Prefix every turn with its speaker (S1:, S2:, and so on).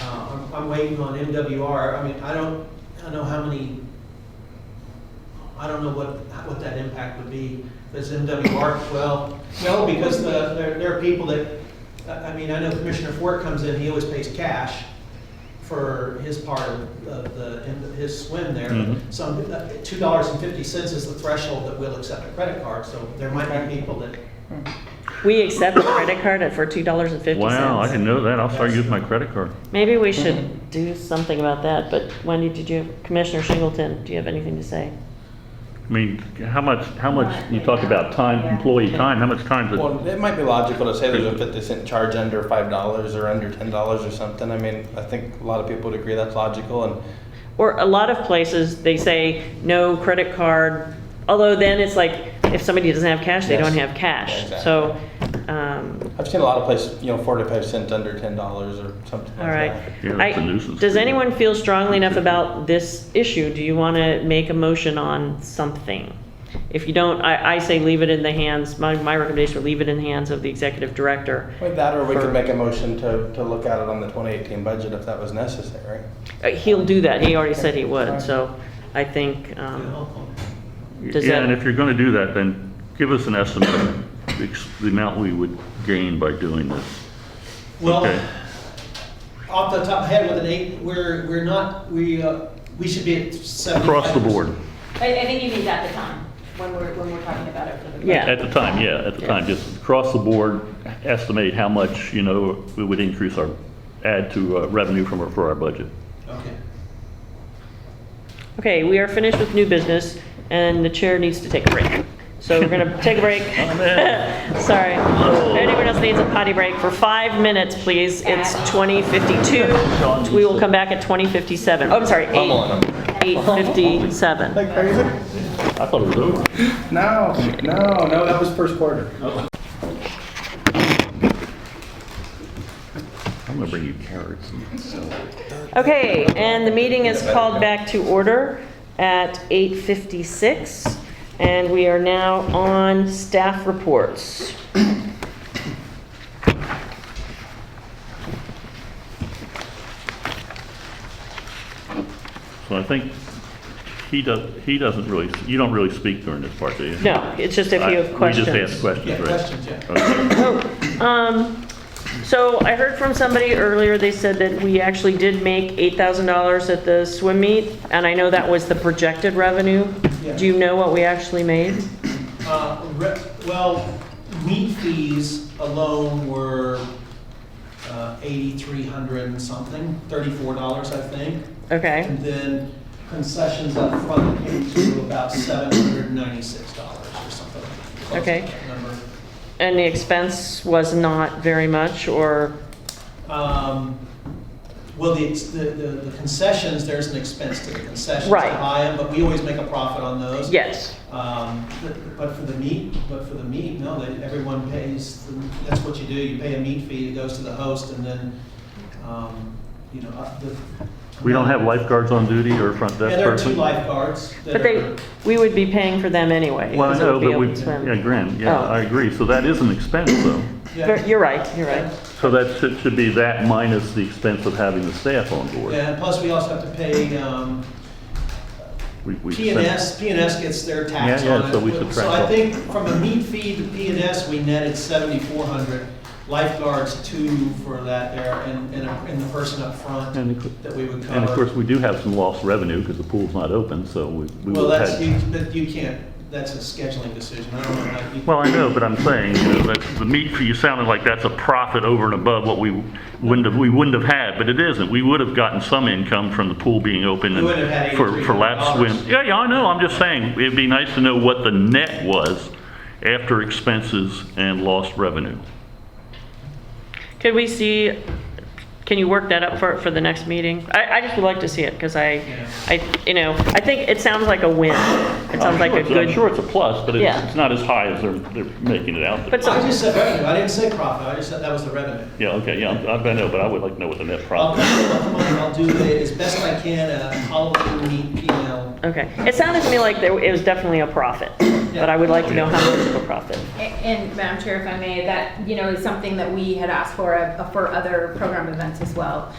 S1: Uh, I'm waiting on MWR, I mean, I don't, I don't know how many, I don't know what, what that impact would be, does MWR, well, no, because the, there, there are people that, I I mean, I know Commissioner Fort comes in, he always pays cash for his part of the- the, his swim there.
S2: Mhm.
S1: Some, uh, two dollars and fifty cents is the threshold that will accept a credit card, so there might be people that
S3: We accept a credit card at- for two dollars and fifty cents.
S2: Wow, I didn't know that. I'll start using my credit card.
S3: Maybe we should do something about that, but Wendy, did you, Commissioner Shingleton, do you have anything to say?
S2: I mean, how much, how much, you talk about time, employee time, how much time is it?
S4: Well, it might be logical to say there's a fifty cent charge under five dollars or under ten dollars or something. I mean, I think a lot of people would agree that's logical and
S3: Or a lot of places, they say no credit card, although then it's like, if somebody doesn't have cash, they
S4: Yes.
S3: don't have cash.
S4: Yeah,
S3: So, um,
S4: I've seen a lot of places, you know, forty-five cent under ten dollars or something like
S3: all right.
S4: that.
S2: Yeah,
S3: I-
S2: that's a nuisance.
S3: Does anyone feel strongly enough about this issue? Do you want to make a motion on something? If you don't, I, I say leave it in the hands, my, my recommendation would leave it in the hands of the executive director.
S4: With that, or we
S3: For-
S4: could make a motion to, to look at it on the twenty eighteen budget if that was necessary.
S3: Uh, He'll do that, he already said he would, so I think, um, does
S2: Yeah, and
S3: that-
S2: if you're gonna do that, then give us an estimate, of ex- the amount we would gain by doing this.
S1: Well,
S2: Okay.
S1: off the top of my head with an eight, we're, we're not, we, uh, we should be at seven.
S2: Across the board.
S5: I, I think you need that at the time, when we're, when we're talking about it for the.
S3: Yeah.
S2: At the time, yeah, at the time, just across the board, estimate how much, you know, we would increase our, add to uh, revenue from, our- for our budget.
S1: Okay.
S3: okay, we are finished with new business, and the chair needs to take a break. So we're gonna take a break.
S2: Oh, man. Oh.
S3: Sorry. Anyone else needs a potty break for five minutes, please? It's 20:52. We will come back at 20:57. Oh, I'm sorry,
S4: Pummeling
S3: eight-
S4: them.
S3: 8:57.
S4: Like crazy?
S2: I thought it was over.
S4: No, no, no, that was first quarter.
S2: I'm gonna bring you carrots.
S3: Okay, and the meeting is called back to order at 8:56, and we are now on staff reports.
S2: So I think he does, he doesn't really, you don't really speak during this part, do you?
S3: No, it's just if you
S2: I-
S3: have questions.
S2: We just ask questions,
S1: Yeah,
S2: right?
S1: questions, yeah.
S2: Okay.
S3: Um, so I heard from somebody earlier, they said that we actually did make $8,000 at the swim meet, and I know that was the projected revenue.
S1: Yeah.
S3: Do you know what we actually made?
S1: Uh, re- well, meat fees alone were, uh, eighty-three hundred and something, thirty-four dollars, I think.
S3: Okay,
S1: And then concessions up front came to about seven hundred and ninety-six dollars or something. close to
S3: Okay.
S1: that number.
S3: and the expense was not very much, or,
S1: Um, Well, the, ex- the, the the concessions, there's an expense to the concessions.
S3: Right.
S1: to buy 'em, But we always make a profit on those.
S3: yes,
S1: Um, But but for the meat, but for the meat, no, they- everyone pays, the- that's what you do, you pay a meat fee, it goes to the host, and then, um, you know, up the.
S2: We don't have lifeguards on duty or front
S1: Yeah,
S2: desk
S1: there are two
S2: person?
S1: lifeguards that
S3: but they,
S1: are-
S3: we would be paying for them anyway.
S2: Well, I
S3: because it
S2: know,
S3: would be
S2: but we,
S3: open swim.
S2: yeah, grand, yeah,
S3: Oh.
S2: I agree. So that is an expense, though.
S1: yeah.
S3: You're right, you're right.
S2: So that should, should be that minus the expense of having the staff on board.
S1: Yeah, and plus we also have to pay, um,
S2: We- we
S1: P and
S2: sent-
S1: S, P and S gets their tax
S2: Yeah, yeah,
S1: on it.
S2: so we subtract
S1: So I
S2: off.
S1: think from a meat fee to P and S, we netted seventy-four hundred, lifeguards two for that there, and, and, a- and the person up front
S2: And of cou-
S1: that we would
S2: and of course,
S1: cover.
S2: we do have some lost revenue because the pool's not open, so we. we
S1: Well,
S2: would've
S1: that's,
S2: had-
S1: you, but you can't, that's a scheduling decision, I don't know how you.
S2: Well, I know, but I'm saying, you know, that the meat fee, you sounded like that's a profit over and above what we wouldn't have, we wouldn't have had, but it isn't. We would have gotten some income from the pool being open
S1: We would have had
S2: and for, for lap swim.
S1: $83.
S2: Yeah, yeah, I know, I'm just saying, it'd be nice to know what the net was after expenses and lost revenue.
S3: Could we see, can you work that up for, for the next meeting? I, I just would like to see it, because I, I, you know, I think it sounds like a win. It sounds like a
S2: I'm
S3: good,
S2: sure it's a plus, but
S3: it's-
S2: it's,
S3: Yeah. it's
S2: not as high as they're, they're making it out there.
S3: but
S1: I
S3: some,
S1: just said revenue, I didn't say profit, I just said that was the revenue.
S2: Yeah, okay, yeah, I know, but I would like to know what the net
S1: I'll,
S2: profit.
S1: I'll do it as best I can, uh, a Halloween meat P and L.
S3: okay. It sounded to me like there, it was definitely a profit, but I would like to know how much of a profit.
S5: A- And Madam Chair, if I may, that, you know, is something that we had asked for, uh, for other program events as well.